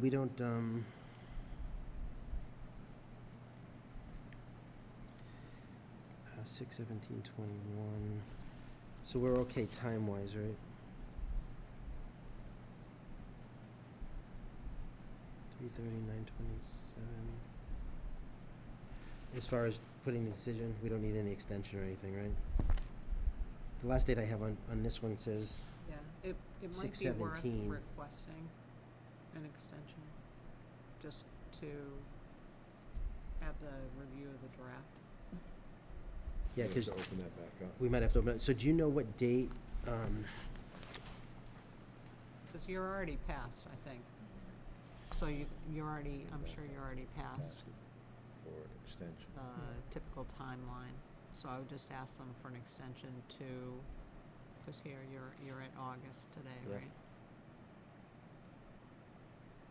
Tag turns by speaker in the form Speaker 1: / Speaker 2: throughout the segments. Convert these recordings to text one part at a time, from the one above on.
Speaker 1: We don't, um... Uh, six seventeen twenty-one, so we're okay time-wise, right? Three thirty-nine twenty-seven. As far as putting the decision, we don't need any extension or anything, right? The last date I have on, on this one says,
Speaker 2: Yeah, it, it might be worth
Speaker 1: 6:17.
Speaker 2: requesting an extension, just to have the review of the draft.
Speaker 1: yeah,
Speaker 3: We have
Speaker 1: cause
Speaker 3: to Open that back up.
Speaker 1: we might have to open it, so do you know what date, um,
Speaker 2: Because you're already passed, I think. So you, you're already, I'm sure you're already past
Speaker 3: Ask For an extension.
Speaker 2: the typical timeline. So I would just ask them for an extension to, because here, you're, you're at August
Speaker 1: Yeah.
Speaker 2: today, right?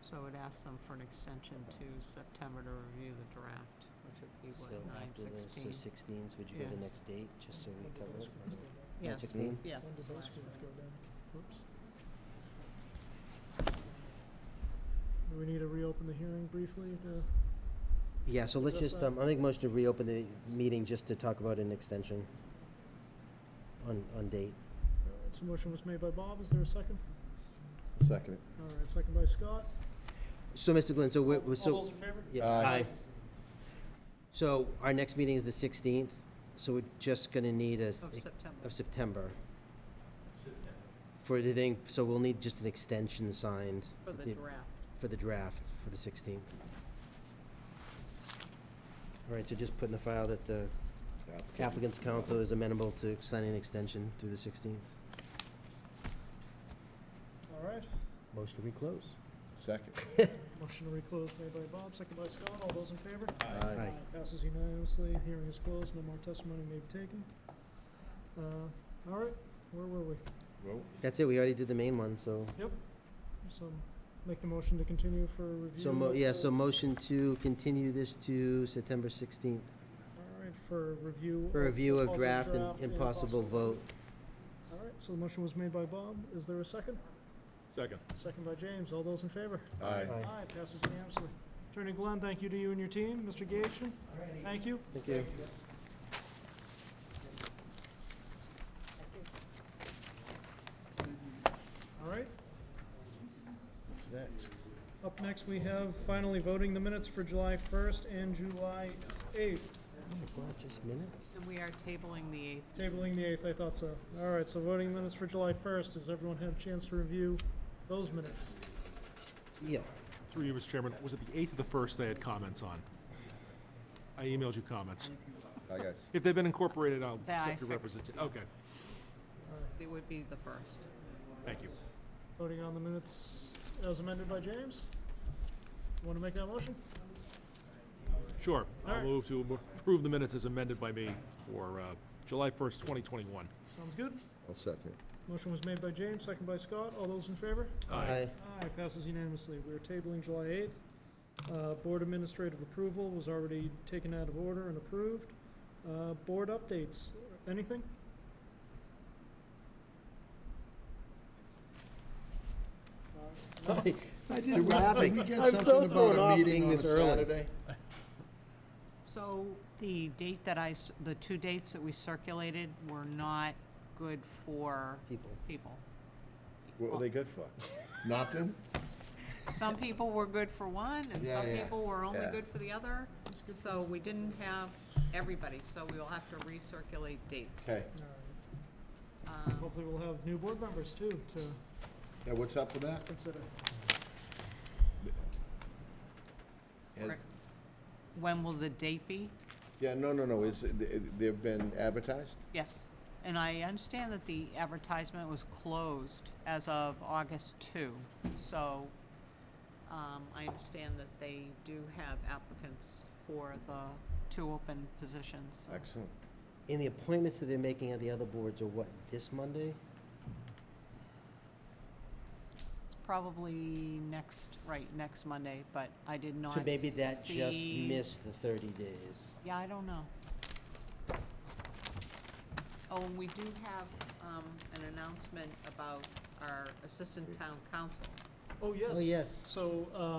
Speaker 2: So I would ask them for an extension to September to review the draft, which would be
Speaker 1: So
Speaker 2: what, nine
Speaker 1: after this, so
Speaker 2: sixteen?
Speaker 1: sixteens, would you go
Speaker 2: Yeah.
Speaker 1: the next date, just so we cover it?
Speaker 2: Yes.
Speaker 1: Nine sixteen?
Speaker 2: Yeah.
Speaker 4: When
Speaker 2: that's
Speaker 4: do those
Speaker 2: last
Speaker 4: ones
Speaker 2: one.
Speaker 4: go down? Whoops. Do we need to reopen the hearing briefly to?
Speaker 1: Yeah, so let's
Speaker 4: That's
Speaker 1: just,
Speaker 4: fine.
Speaker 1: um, I'll make a motion to reopen the meeting just to talk about an extension on, on date.
Speaker 3: Alright,
Speaker 4: So motion was made by Bob, is there a second?
Speaker 3: so Second it.
Speaker 4: All right, second by Scott.
Speaker 1: So, Mr. Glenn, so we're, we're-
Speaker 4: All
Speaker 1: so.
Speaker 4: those in favor?
Speaker 1: yeah,
Speaker 3: Aye.
Speaker 1: So our next meeting is the sixteenth, so we're just gonna need a, s-
Speaker 2: Of September.
Speaker 1: of September. For the thing, so we'll need just an extension signed.
Speaker 2: For
Speaker 1: that
Speaker 2: the draft.
Speaker 1: for the draft for the 16th. All right, so just put in the file that the applicant's counsel is amenable to signing an extension through the 16th.
Speaker 4: All right,
Speaker 1: Motion to reclose.
Speaker 3: Second.
Speaker 4: motion to reclose made by Bob, second by Scott, all those in favor?
Speaker 1: Aye.
Speaker 4: Passes unanimously, hearing is closed, no more testimony may be taken. Uh, all right, where were we?
Speaker 3: Vote.
Speaker 1: That's it, we already did the main one, so,
Speaker 4: So make the motion to continue for review.
Speaker 1: so, mo-
Speaker 4: of
Speaker 1: yeah,
Speaker 4: the-
Speaker 1: so motion to continue this to September 16th
Speaker 4: All right, for review.
Speaker 1: for
Speaker 4: of
Speaker 1: review of
Speaker 4: possible
Speaker 1: draft and and possible vote.
Speaker 4: All right, so the motion was made by Bob. Is there a second?
Speaker 3: Second.
Speaker 4: Second by James. All those in favor?
Speaker 3: Aye.
Speaker 1: Aye.
Speaker 4: Aye, passes unanimously. Attorney Glenn, thank you to you and your team. Mr. Gaetian, thank you.
Speaker 1: Thank you.
Speaker 4: All right,
Speaker 3: Next.
Speaker 4: up next, we have finally voting the minutes for July 1st and July 8th.
Speaker 1: Oh Just minutes?
Speaker 2: And we are tabling the eighth.
Speaker 4: Tabling the 8th, I thought so. All right, so voting minutes for July 1st. Has everyone had a chance to review those minutes?
Speaker 1: Yeah.
Speaker 5: Through you, Mr. Chairman, was it the 8th or the 1st they had comments on? I emailed you comments.
Speaker 3: Aye, guys.
Speaker 5: If they've been incorporated, I'll
Speaker 2: That I
Speaker 5: accept your
Speaker 2: fixed.
Speaker 5: representation. Okay,
Speaker 4: All right,
Speaker 2: It would be the first.
Speaker 5: thank you.
Speaker 4: Voting on the minutes as amended by James. Want to make that motion?
Speaker 5: Sure, I'll
Speaker 4: Alright.
Speaker 5: move to approve the minutes as amended by me for uh, July 1st, 2021.
Speaker 4: Sounds good.
Speaker 3: I'll second.
Speaker 4: Motion was made by James, second by Scott. All those in favor?
Speaker 5: Aye.
Speaker 4: Aye, passes unanimously. We are tabling July 8th. Uh, Board administrative approval was already taken out of order and approved. Uh, Board updates, anything?
Speaker 1: Aye. I just laughing. I'm so thrown off being this early.
Speaker 2: So the date that I, s- the two dates that we circulated were not good for
Speaker 1: People.
Speaker 2: people.
Speaker 3: What were they good for? Nothing?
Speaker 2: Some people were good for one, and
Speaker 3: Yeah,
Speaker 2: some
Speaker 3: yeah,
Speaker 2: people were only
Speaker 3: yeah.
Speaker 2: good for the other. So we didn't have everybody, so we will have to recirculate dates.
Speaker 3: Okay.
Speaker 4: All right.
Speaker 2: Um,
Speaker 4: Hopefully we'll have new board members too to
Speaker 3: Yeah, what's up with that?
Speaker 4: consider.
Speaker 3: Has-
Speaker 2: Correct. When will the date be?
Speaker 3: Yeah, no, no, no, is, it- it- they've been advertised?
Speaker 2: Yes, and I understand that the advertisement was closed as of August two, so, um, I understand that they do have applicants for the two open positions. so-
Speaker 3: Excellent.
Speaker 1: And the appointments that they're making at the other boards are what, this Monday?
Speaker 2: It's probably next, right, next Monday, but I did not
Speaker 1: So maybe that just
Speaker 2: see-
Speaker 1: missed the thirty days.
Speaker 2: Yeah, I don't know. Oh, and we do have, um, an announcement about our assistant town council.
Speaker 4: Oh, yes.
Speaker 1: yes.
Speaker 4: So, uh,